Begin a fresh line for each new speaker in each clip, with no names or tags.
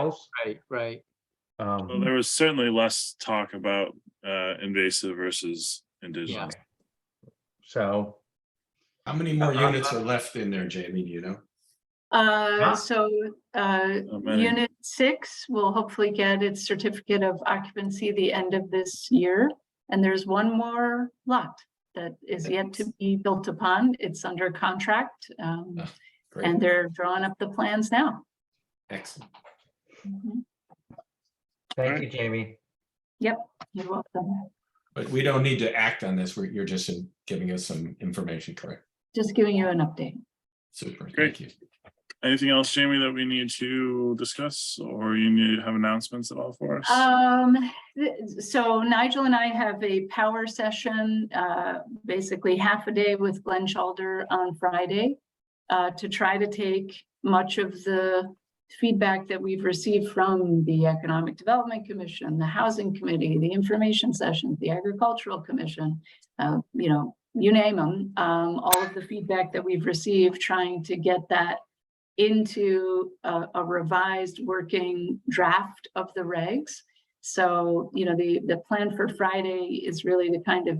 else.
Right, right.
Well,
Um,
there was certainly less talk about uh, invasive versus indigenous.
so,
How many more units are left in there, Jamie, do you know?
Huh?
Uh, so, uh,
Not many.
unit six will hopefully get its certificate of occupancy the end of this year. And there's one more lot that is yet to be built upon. It's under contract. Um,
Oh, great.
and they're drawing up the plans now.
Excellent.
Mhm.
thank you, Jamie.
You're welcome.
But we don't need to act on this. We're, you're just in- giving us some information, correct?
Just giving you an update.
Super,
Great.
thank you.
Anything else, Jamie, that we need to discuss or you need to have announcements at all for us?
Um, th- so Nigel and I have a power session, uh, basically half a day with Glenn Shalder on Friday. Uh, to try to take much of the feedback that we've received from the Economic Development Commission, the Housing Committee, the Information Session, the Agricultural Commission. Uh, you know, you name them, um, all of the feedback that we've received, trying to get that into a, a revised working draft of the regs. So, you know, the, the plan for Friday is really to kind of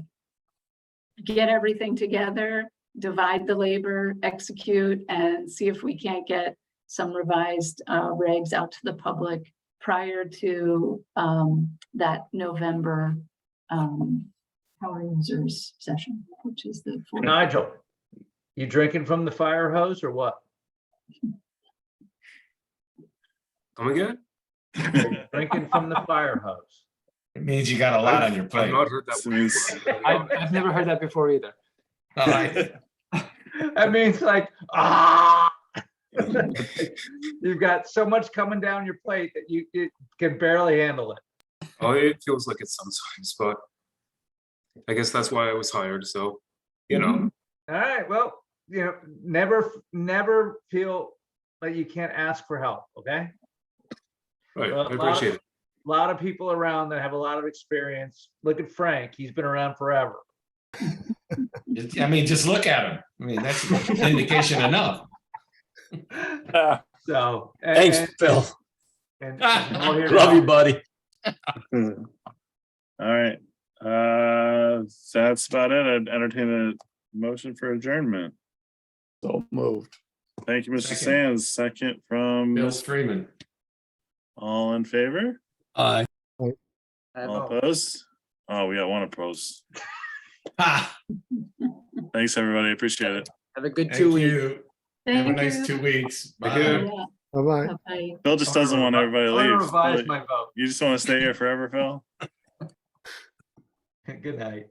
get everything together, divide the labor, execute, and see if we can't get some revised, uh, regs out to the public prior to, um, that November, um, power users session, which is the. 4th.
Nigel, you drinking from the fire hose or what?
Come again?
Drinking from the fire hose.
It means you got a lot on your
I've
plate.
not heard that
This
one.
is-
I, I've never heard that before either.
All right.
That means like, ah. You've got so much coming down your plate that you, you can barely handle it.
Oh, it feels like it sometimes, but I guess that's why I was hired, so, you know,
All right, well, you know, never, f- never feel like you can't ask for help, okay? Well,
right,
a lot
I
of-
appreciate it.
A lot of people around that have a lot of experience. Look at Frank, he's been around forever.
Just- I mean, just look at him. I mean, that's indication enough.
So. a-
Thanks,
and-
Phil.
and- and we'll hear
Love you,
about-
buddy.
All right, uh, that's about it. I'd entertain a motion for adjournment.
So moved.
Thank you, Mr.
Second.
Sands. Second from,
Bill Freeman.
all in favor?
Aye.
All
Oh,
opposed? Oh, we got one opposed.
Ha,
Thanks, everybody. Appreciate it.
Have a good
Thank
two weeks.
you. Have a
Thank
nice
you.
two weeks.
Thank you.
Bye.
Yeah,
Bye-bye.
Bye-bye.
Phil just
I'm
doesn't want
gonna
everybody to
I'm gonna
leave.
revise
Really.
my vote.
You just want to stay here forever, Phil?
Good night.